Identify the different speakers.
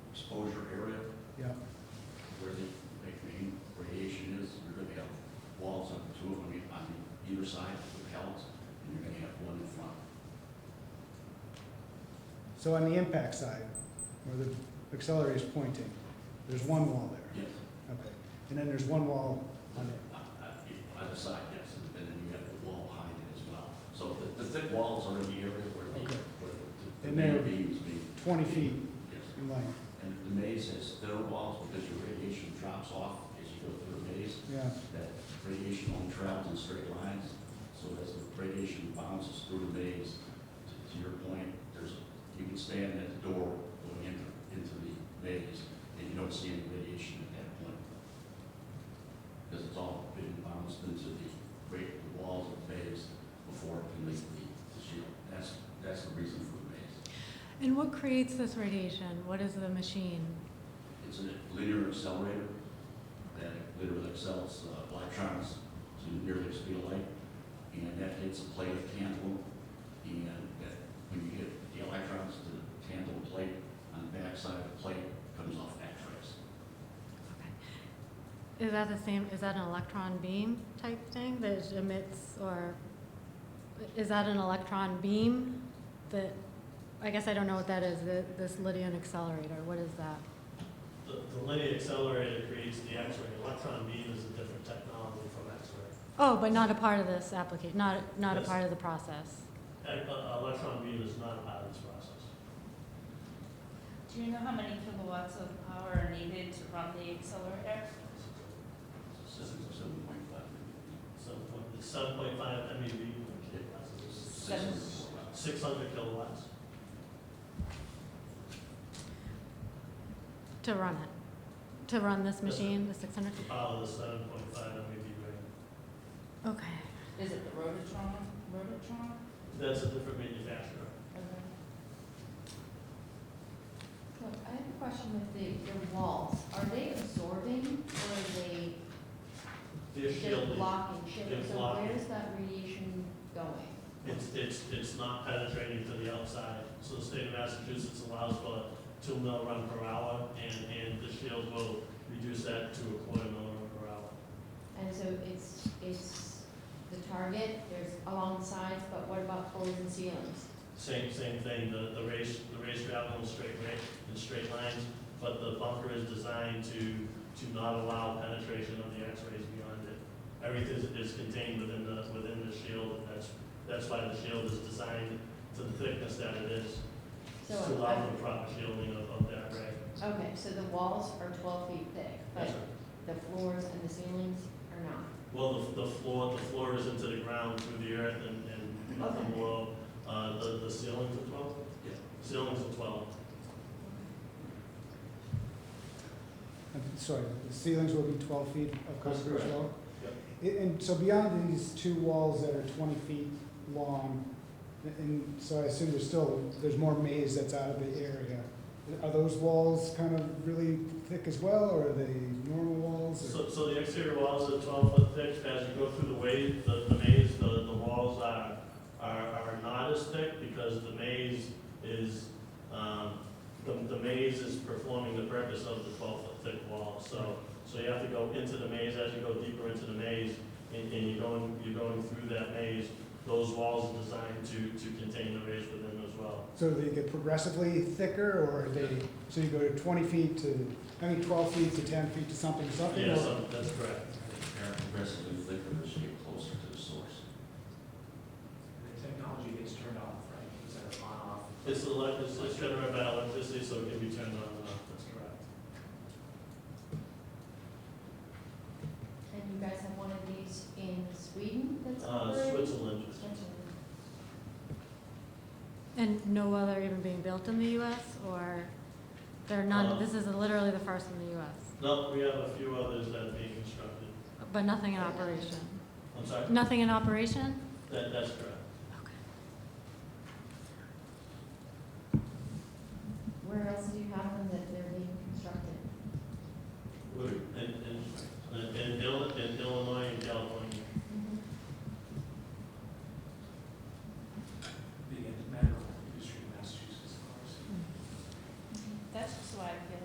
Speaker 1: So on the impact side, where the accelerator is pointing, there's one wall there,
Speaker 2: Yes,
Speaker 1: okay. And then there's one wall on it.
Speaker 2: Uh, uh, either side, yes, and then you have the wall behind it as well. So the, the thick walls are in the area where the,
Speaker 1: Okay.
Speaker 2: where the- the
Speaker 1: And they're
Speaker 2: main beams being.
Speaker 1: 20 feet
Speaker 2: Yes,
Speaker 1: in length,
Speaker 2: and the maze has thinner walls because your radiation drops off as you go through a maze.
Speaker 1: yeah.
Speaker 2: That radiation only travels in straight lines, so as the radiation bounces through the maze, to- to your point, there's, you can stand at the door going into, into the maze, and you don't see any radiation at that point. Because it's all been bounced into the great walls of the maze before it can leave the the shield. That's, that's the reason for the maze.
Speaker 3: And what creates this radiation? What is the machine?
Speaker 2: It's a linear accelerator that literally accelerates uh, electrons to nearly the speed of light. And that hits a plate of tantalum. And that, when you hit the electrons to the tantalum plate, on the backside of the plate comes off X-rays.
Speaker 3: Okay. Is that the same, is that an electron beam type thing that emits, or is that an electron beam that, I guess I don't know what that is, the- this Lydian accelerator, what is that?
Speaker 4: The the linear accelerator creates the X-ray. Electron beam is a different technology from X-ray.
Speaker 3: Oh, but not a part of this application, not, not a
Speaker 4: Yes.
Speaker 3: part of the process.
Speaker 4: E- uh, Electron beam is not part of this process.
Speaker 5: Do you know how many kilowatts of power are needed to run the accelerator?
Speaker 2: So Seven, seven point five.
Speaker 4: So what- it's 7.5 MeV,
Speaker 5: Seven.
Speaker 2: Six point five.
Speaker 4: 600 kilowatts.
Speaker 3: To run it? To run this
Speaker 4: Yes.
Speaker 3: machine, the 600?
Speaker 4: to Power the 7.5 MeV ring.
Speaker 3: Okay.
Speaker 5: Is it the Rotatron? Rotatron?
Speaker 4: That's a different manufacturer.
Speaker 6: Look, I have a question with the, the walls. Are they absorbing or are they
Speaker 4: They're
Speaker 6: just
Speaker 4: shielded.
Speaker 6: blocking? shielding?
Speaker 4: They're
Speaker 6: So
Speaker 4: blocking.
Speaker 6: where's that radiation going?
Speaker 4: It's, it's, it's not penetrating to the outside. So the state of Massachusetts allows for two mil run per hour, and, and the shield will reduce that to a quarter mil run per hour.
Speaker 6: And so it's, it's the target, there's along the sides, but what about floors and ceilings?
Speaker 4: Same, same thing, the, the race, the race travel in straight ra in straight lines, but the bunker is designed to, to not allow penetration of the X-rays beyond it. Everything is- is contained within the, within the shield, and that's, that's why the shield is designed to the thickness that it is,
Speaker 6: So,
Speaker 4: to allow
Speaker 6: I'm-
Speaker 4: for proper shielding of, of that ray.
Speaker 6: okay, so the walls are twelve feet thick, but
Speaker 4: Yes, sir.
Speaker 6: the floors and the ceilings are not?
Speaker 4: Well, the, the floor, the floor is into the ground through the earth and, and nothing
Speaker 6: Okay.
Speaker 4: below, uh, the, the ceilings are twelve?
Speaker 2: Yeah.
Speaker 4: Ceilings are twelve.
Speaker 1: I'm Sorry, the ceilings will be 12 feet of
Speaker 4: That's
Speaker 1: concrete as
Speaker 4: correct.
Speaker 1: well? And- And so beyond these two walls that are 20 feet long, and so I assume there's still, there's more maze that's out of the area. Are those walls kind of really thick as well, or are they normal walls? or-
Speaker 4: So, so the exterior walls are twelve foot thick, as you go through the wave, the, the maze, the, the walls are, are, are not as thick, because the maze is, um, the, the maze is performing the purpose of the twelve foot thick wall, so, so you have to go into the maze, as you go deeper into the maze, and, and you're going, you're going through that maze, those walls are designed to, to contain the rays within as well.
Speaker 1: So do they get progressively thicker, or are they, so you go to 20 feet to, I mean, 12 feet to 10 feet to something, something?
Speaker 4: Yeah,
Speaker 1: or-
Speaker 4: so, that's correct.
Speaker 2: They're progressively thicker as you get closer to the source.
Speaker 7: The technology gets turned off, right? Is that on, off?
Speaker 4: It's elect, it's it's generated by electricity, so it can be turned on and off, that's correct.
Speaker 6: And you guys have one of these in Sweden that's
Speaker 4: Uh,
Speaker 6: operating?
Speaker 4: Switzerland.
Speaker 6: Switzerland.
Speaker 3: And no other even being built in the US, or they're
Speaker 4: Uh,
Speaker 3: not, this is literally the first in the US,
Speaker 4: No, we have a few others that are being constructed.
Speaker 3: but nothing in operation?
Speaker 4: I'm sorry?
Speaker 3: Nothing in operation?
Speaker 4: That, that's correct.